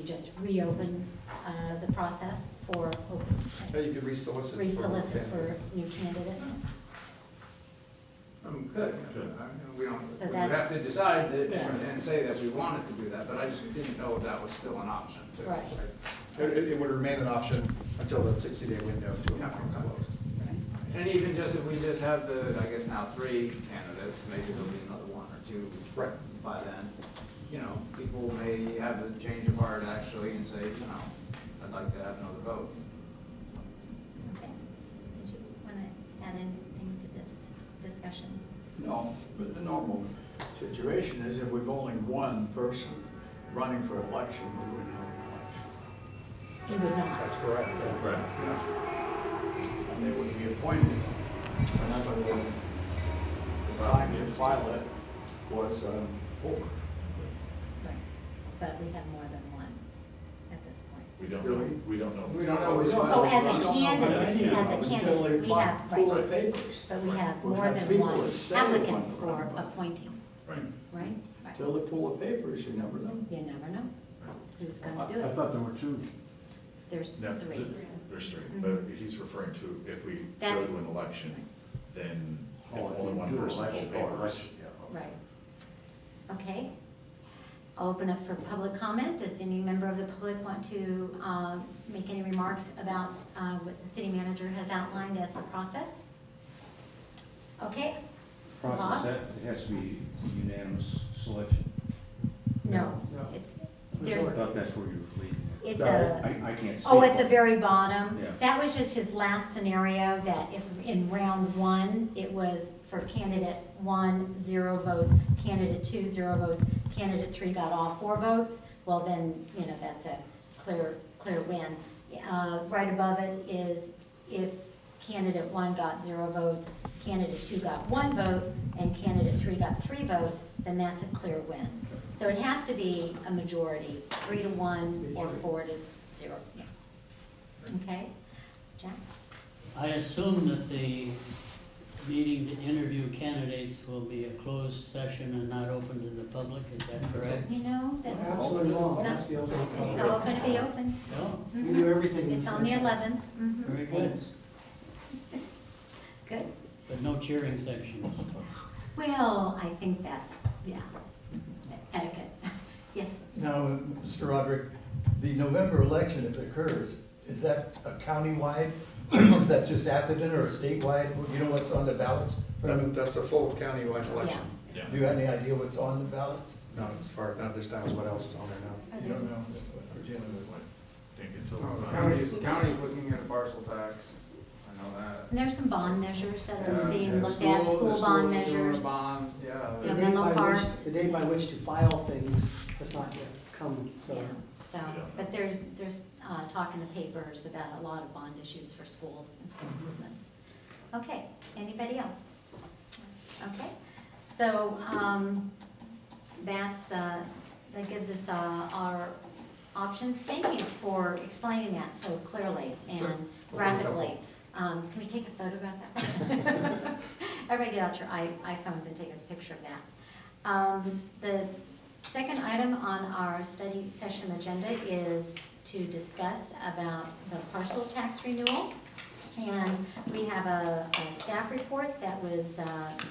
You just reopen uh, the process for, Yeah, you could resolicit. for re-solicit for candidates. new candidates. Um, Good, I mean, we don't, So we would that's- have to decide that Yeah. and and say that we wanted to do that, but I just didn't know if that was still an option too. Right. It, it- it would remain an option until that sixty-day window to Yeah, appoint okay. closed. And even just if we just have the, I guess now three candidates, maybe there'll be another one or two. Right. By then, you know, people may have a change of heart actually and say, you know, I'd like to have another vote. Okay. Did you want to add anything to this discussion? No, but the normal situation is if we've only one person running for election, we wouldn't have an election. You would That's not. correct. Right. And they wouldn't be appointed. Another one, the time to file it was um, over. Right. But we have more than one at this point. We don't Do know, we? we don't know. We don't know. Oh, as We a don't know candidate, what it is as a Until candidate, they we file- have, pull their right. papers. But we have We've more had than people one that say they applicants want to for run, but appointing, Right. right? Until they pull the papers, you never know. You never know who's going to do I I it. thought there were two. There's No, three. There's three, Mm-hmm. but he's referring to if we go That's- to an election, then if Oh, only one you do person will election, oh, papers. election, yeah, okay. Right. Okay. I'll Open up for public comment. Does any member of the public want to uh, make any remarks about uh, what the city manager has outlined as the process? Okay? process, Bob? that it has to be unanimous selection. No, No. it's, I there's, thought that's where you were leading. it's a, I, I can't see. oh, at the very bottom. Yeah. That was just his last scenario, that if, in round one, it was for candidate one, zero votes, candidate two, zero votes, candidate three got all four votes, well then, you know, that's a clear, clear win. Uh, Right above it is if candidate one got zero votes, candidate two got one vote, and candidate three got three votes, then that's a clear win. So it has to be a majority, three to one or four to zero, yeah. Okay, Jack? I assume that the meeting to interview candidates will be a closed session and not open to the public, is that correct? You know, that's, Absolutely. that's, it's all gonna be open. No? We do everything. It's on the eleventh, mhm, Very good, good. but no cheering sections. Well, I think that's, yeah, etiquette, yes. Now, Mr. Roderick, the November election, if it occurs, is that a countywide, or is that just Atherton, or a statewide? You know what's on the ballots? That- Do that's a full countywide election. Yeah. you have any idea what's on the ballots? Not as far, not this time as what else is on there now. You don't know. Virginia would want. Think until. Oh, No, the County's, county's looking at a parcel tax, I know that. And there's some bond measures that Yeah, are being the looked at, the school bond school's doing a measures. Bond, yeah. The date by which- the date by which to file things has not yet come, Yeah, so, Yeah. but there's, there's uh, talk in the papers about a lot of bond issues for schools and school Mm-hmm. improvements. Okay, anybody else? Okay, so um, that's, uh, that gives us uh, our options. Thank you for explaining that so clearly Sure. and Well, thanks, rapidly. Um, Can we take a photograph of that? Everybody get out your i- iPhones and take a picture of that. Um, The second item on our study session agenda is to discuss about the parcel tax renewal. And we have a a staff report that was uh,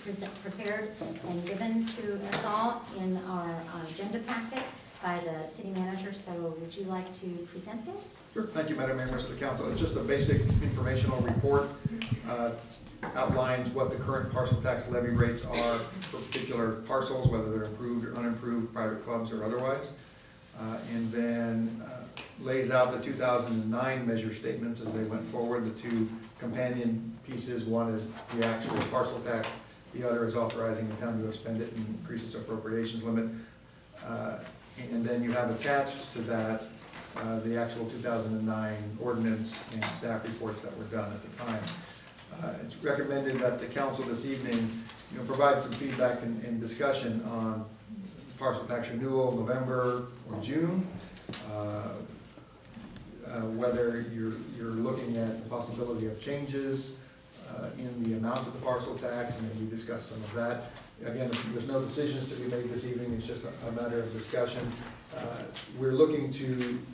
presen- prepared and given to us all in our uh, agenda packet by the city manager. So would you like to present this? Sure, thank you, Madam Mayor, members of the council. It's just a basic informational report, uh, outlines what the current parcel tax levy rates are for particular parcels, whether they're improved or unimproved, private clubs or otherwise. Uh, And then uh, lays out the 2009 measure statements as they went forward. The two companion pieces, one is the actual parcel tax, the other is authorizing the town to expend it and increase its appropriations limit. Uh, And then you have attached to that uh, the actual 2009 ordinance and staff reports that were done at the time. Uh, It's recommended that the council this evening, you know, provide some feedback and and discussion on parcel tax renewal November or June. uh, uh, Whether you're, you're looking at the possibility of changes uh, in the amount of the parcel tax, and then we discussed some of that. Again, there's no decisions to be made this evening, it's just a a matter of discussion. uh, we're looking to